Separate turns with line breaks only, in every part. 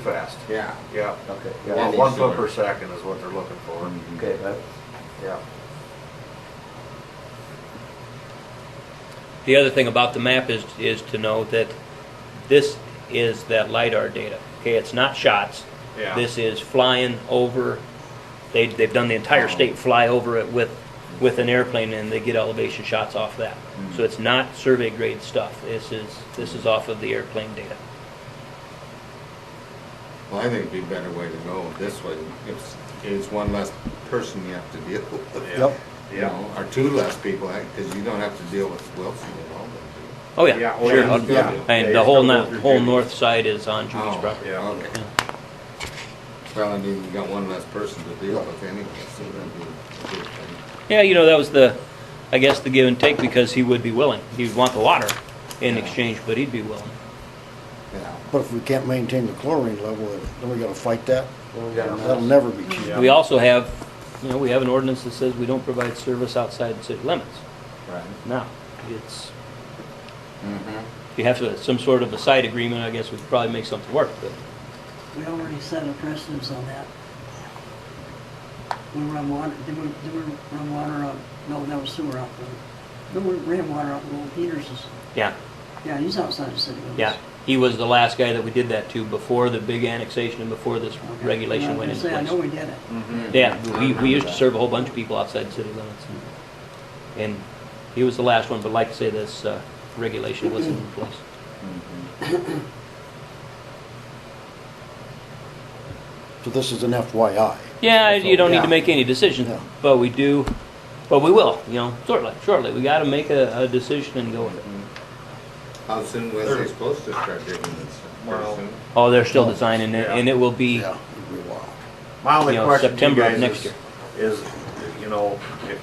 Fast,
Yeah,
yeah.
okay, yeah,
One
And
one
these
foot
solar.
per second is what they're looking for,
okay, that,
yeah.
The other thing about the map is, is to know that this is that LiDAR data. Okay, it's not shots.
Yeah.
This is flying over, they, they've done the entire state fly over it with, with an airplane and they get elevation shots off that. So it's not survey grade stuff. This is, this is off of the airplane data.
Well, I think it'd be a better way to go this way. It's, it's one less person you have to deal with.
Yeah.
Yep.
You
Yeah,
know, or two less people, because you don't have to deal with Wilson at all. do
Oh,
Yeah,
yeah,
oh,
sure.
yeah, he's got
I'll-
it.
Yeah,
And the
he's
whole,
got
no-
both your
whole
duties.
north side is on
you?
Judy's property.
yeah.
Oh, okay. Well, I mean, you got one less person to deal with anyway, so that'd be a good thing.
Yeah, you know, that was the, I guess, the give and take because he would be willing. He'd want the water in
Yeah.
exchange, but he'd be willing.
Yeah.
But if we can't maintain the chlorine level, then we gotta fight that?
Yeah.
That'll never be cheap.
Yeah.
We also have, you know, we have an ordinance that says we don't provide service outside the city limits.
Right.
Now, it's,
Mhm.
if you have to, some sort of a side agreement, I guess we could probably make something work, but
We already set a precedence on that. We run water, did we, did we run water on, no, that was sewer out there. Then we ran water out Little Peters's.
yeah,
Yeah, he's outside the city limits.
yeah. He was the last guy that we did that to before the big annexation and before this
Okay.
regulation went
I was
into
gonna say, I know
place.
we did it.
Mm.
Yeah, we,
remember
we used to
that.
serve a whole bunch of people outside the city limits. and- And he was the last one, but like I say, this, uh, regulation wasn't in place.
So this is an FYI.
Yeah, you don't need
Yeah.
to make any decisions,
No.
but we do, but we will, you know, shortly, shortly. We gotta make a, a decision and go with it.
How soon was they supposed to start digging this? Pretty
Well,
soon?
Oh, they're still designing it,
Yeah.
and it will be,
Yeah, it'd be a while.
My only
You know,
question to you
September of
guys
next
is, is, you know, if,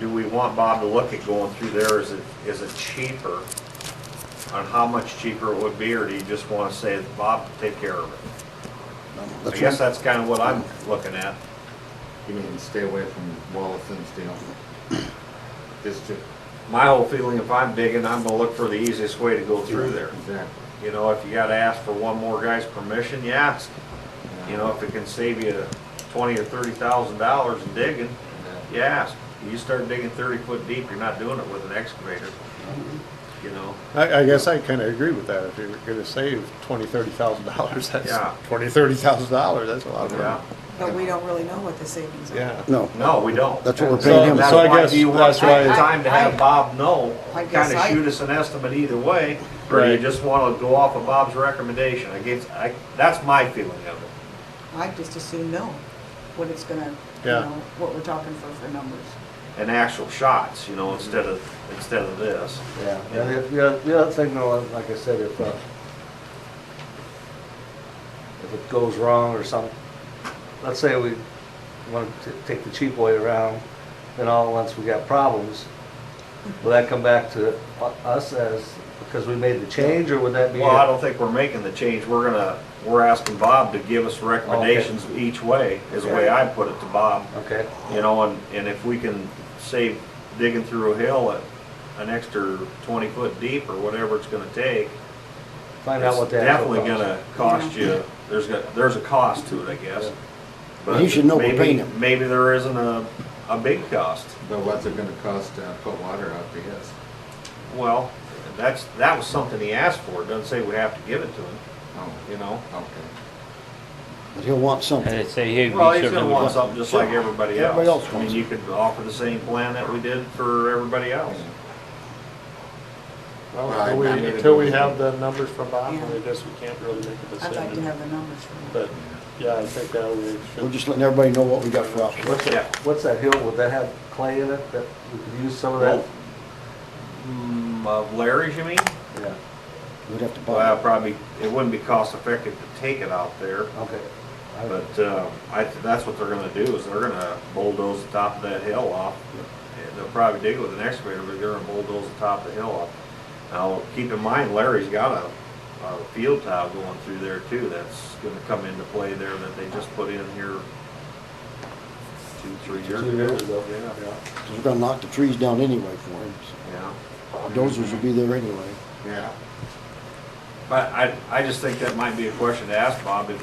do we want Bob to look at going through there, is it, is it cheaper? On how much cheaper it would be, or do you just wanna say, Bob, take care of it? I
That's
guess
right.
that's kinda what I'm looking at.
You mean, stay away from Wilson's deal? Just to,
My whole feeling, if I'm digging, I'm gonna look for the easiest way to go through there.
exactly.
You know, if you gotta ask for one more guy's permission, you ask. You know, if it can save you twenty or thirty thousand dollars in digging, you ask. You start digging thirty foot deep, you're not doing it with an excavator. You know,
I, I guess I kinda agree with that, if you're gonna save twenty, thirty thousand dollars, that's,
Yeah.
twenty, thirty thousand dollars, that's a lot of
yeah.
money.
But we don't really know what the savings are.
Yeah.
No,
No, we don't.
That's what we're
So
paying him
That's
for.
So I
why,
guess
do you want
that's
to take
why-
time to have Bob know?
I guess
Kinda
I-
shoot us an estimate either way, or you
Right.
just wanna go off of Bob's recommendation? I guess, I, that's my feeling of it.
I just assume no, what it's gonna, you
Yeah.
know, what we're talking for, for numbers.
And actual shots, you know, instead of, instead of this.
Yeah, and if, yeah, the other thing though, like I said, if, uh, if it goes wrong or something, let's say we want to take the cheap way around, then all at once we got problems, will that come back to u- us as, because we made the change, or would that be?
Well, I don't think we're making the change, we're gonna, we're asking Bob to give us recommendations each way, is the way I put it to Bob.
Okay,
You know, and, and if we can save digging through a hill at an extra twenty foot deep or whatever it's gonna take,
find out
it's
what the actual
definitely
cost.
gonna cost you, there's gonna, there's a cost to it, I guess. But
He should know we're
maybe-
paying him.
Maybe there isn't a, a big cost.
But what's it gonna cost to put water out to his?
Well, that's, that was something he asked for, It doesn't say we have to give it to him,
Oh,
you know?
okay.
but he'll want
and
something.
they say, hey, we
Well, he's gonna
certainly
want
would.
something just like everybody else.
Everybody else
I mean,
wants
you could offer the same plan that we did for everybody else.
Well,
Right,
until we,
I mean, it
until we
would be-
have the numbers from Bob,
Yeah.
I guess we can't really make a
I'd
decision.
like to have the numbers for that.
But, yeah, I think that we
We're
should,
just letting everybody know what we got for options.
what's
Yeah.
that, what's that hill, would that have clay in it, that we could use some of that?
Well, mm, of Larry's, you mean?
Yeah,
We'd have to buy
Well,
it.
probably, it wouldn't be cost effective to take it out there,
okay. I-
but, uh, I, that's what they're gonna do, is they're gonna bulldoze the top of that hill off. And They'll probably dig it with an excavator, but they're gonna bulldoze the top of the hill off. Now, keep in mind, Larry's got a, a field tile going through there too, that's gonna come into play there that they just put in here two, three years
Two
ago.
years ago,
Yeah,
yeah.
'Cause We're gonna knock the trees down anyway for him.
yeah.
so Dozers will be there anyway.
Yeah.
But I, I just think that might be a question to ask Bob, if